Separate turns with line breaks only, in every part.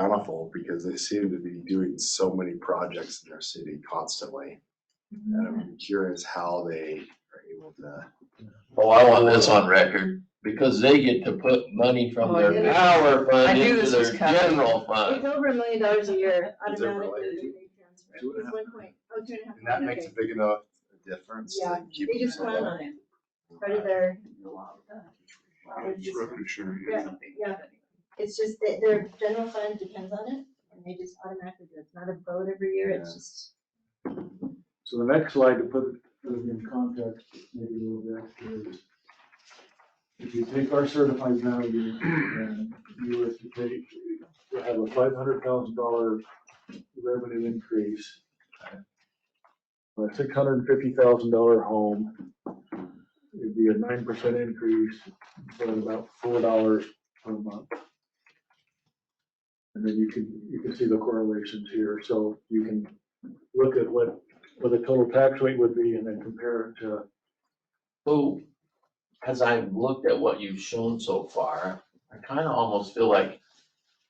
bountiful because they seem to be doing so many projects in their city constantly. And I'm curious how they are able to.
Oh, I want this on record, because they get to put money from
Oh, I knew
their
this-
power
I
fund
knew
into
this
their
was coming.
general fund.
It's over a million dollars a year
Is it
automatically.
really?
that they transfer.
Two and a
It's
half
one point, oh, two and a half.
And that
million,
makes a
okay.
big enough difference
Yeah,
to keep.
They just
them
plan
alive.
on it, right there. Yeah, yeah. It's just that their general fund depends on it and they just automatically do it. It's not a vote every year, it's
Yeah.
just.
So the next slide to put it in context, maybe a little bit, is if you take our certified value and you were to take, to have a five hundred thousand dollar revenue increase, a six hundred and fifty thousand dollar home, it'd be a nine percent increase, but about four dollars per month. And then you can, you can see the correlations here, so you can look at what what the total tax rate would be and then compare it to,
So, as I've looked at what you've shown so far, I kinda almost feel like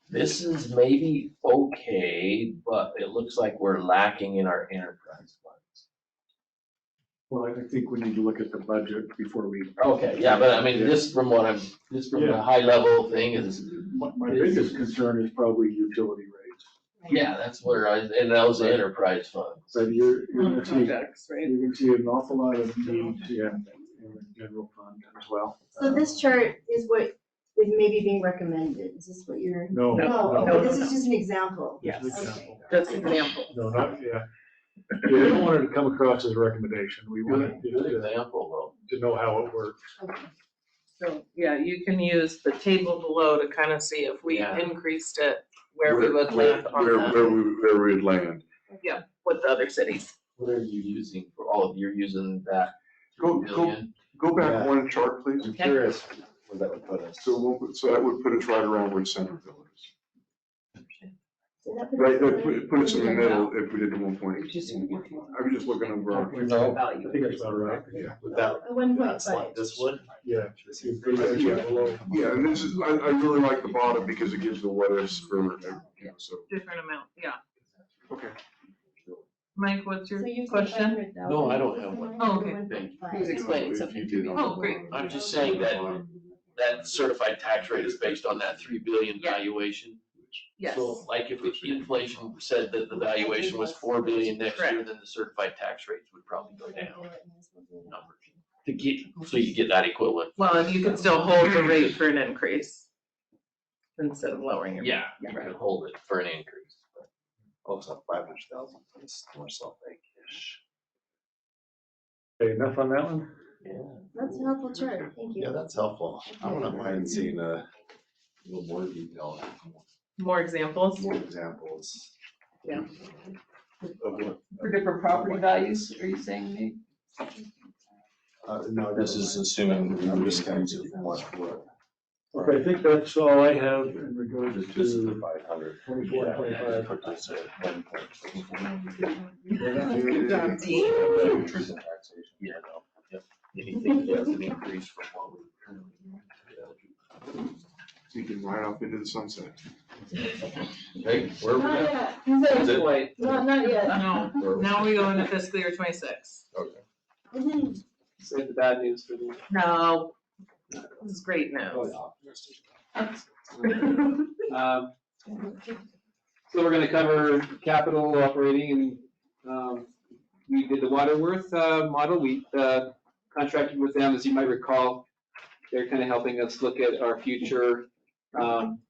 this is maybe okay, but it looks like we're lacking in our enterprise funds.
well, I think we need to look at the budget before we.
Okay, yeah, but I mean, this from what I'm, this from the
Yeah.
high level thing is,
My, my biggest concern is probably utility rates.
yeah, that's where I, and that was the enterprise fund.
But you're, you're gonna see,
Projects, right?
you're gonna see an awful lot of needs yeah, in the general fund as well.
So this chart is what is maybe being recommended. Is this what you're?
No.
No,
no,
okay, this is just an example.
Yes,
Okay.
that's an example.
No, not, yeah. We don't want it to come across as a recommendation. We want it
Good
to,
example though.
to know how it works.
Okay.
So, yeah, you can use the table below to kind of see if we
Yeah.
increased it, where we would land on
Where,
that
where we, where we'd land.
with the other cities.
What are you using for all of, you're using that
Go-
two
go-
million?
Go
Yeah.
back one chart, please.
I'm curious where that would put us.
So we'll, put- so that would put us right around where Centerville is.
So that puts
Right,
us
that
in-
put, put us in the middle if we did the one point. I was just looking over. our-
I think that's about right.
Yeah.
Would that,
A one point
that's like
five.
this one?
Yeah.
This
If
is-
we put it below-
Yeah, and this is, I, I really like the bottom because it gives the what ifs for, you know, so.
Different amount, yeah.
Okay.
Mike, what's your
So you said
question?
500,000.
No, I don't have one.
Oh, okay.
Thank you.
He was explaining
If
something
you
to
did
me.
on the
Oh, great.
bottom.
I'm just saying that that certified tax rate is based on that three billion
Yeah.
valuation.
Yes,
So like if the inflation said that the valuation was four billion next year, then the certified tax rates would probably go down Numbers. to get, so you get that equivalent.
well, and you can still hold the rate for an increase instead of lowering it.
Yeah, you can hold it for an increase.
Oh, it's not five hundred thousand, it's more Salt Lake-ish.
Okay, enough on that one?
That's a helpful chart, thank you.
Yeah, that's helpful. I wouldn't mind seeing a little more detail,
More examples
more examples.
Yeah.
Of what,
For different property values, are you saying, Nate?
uh, no, this is assuming, I'm just going to what, what.
Okay, I think that's all I have in regards
Just just the
to
five hundred.
twenty-four, twenty-five.
job,
Yeah, no, yep. Anything that's an increase from what we currently.
You can ride off into the sunset.
Okay, where are we
Not
at?
yet,
Is it?
not, not yet.
No,
Where are we
now we go into fiscal year twenty-six.
Mhm.
Save the bad news for the.
No, this is great news.
at?
Um, So we're gonna cover capital operating and, um, we did the Waterworth, uh, model. We, uh, contracted with them, as you might recall. They're kind of helping us look at our future, um,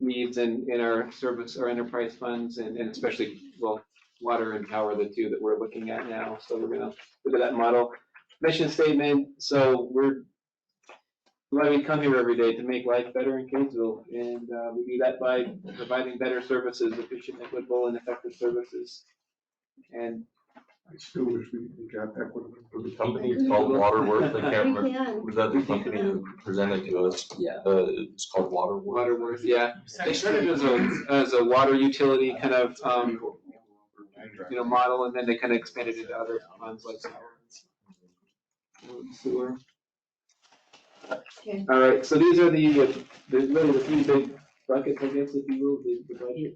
needs in, in our service, our enterprise funds and, and especially, well, water and power, are the two that we're looking at now. So we're gonna look at that model. Mission statement, so we're why we come here every day to make life better in Kaysville, and uh, we do that by providing better services, efficient, equitable, and effective services. And
I still wish we got equitable.
The company is called Waterworth, I can't
We
remember,
can.
was that the company that presented to us?
Yeah.
Uh, it's called Waterworth.
Waterworth, yeah, they started as a, as a water utility kind of, um, you know, model, and then they kind of expanded into other funds like sewer.
Okay.
All right, so these are the, the really the three big buckets, I guess, if you will, the the budget.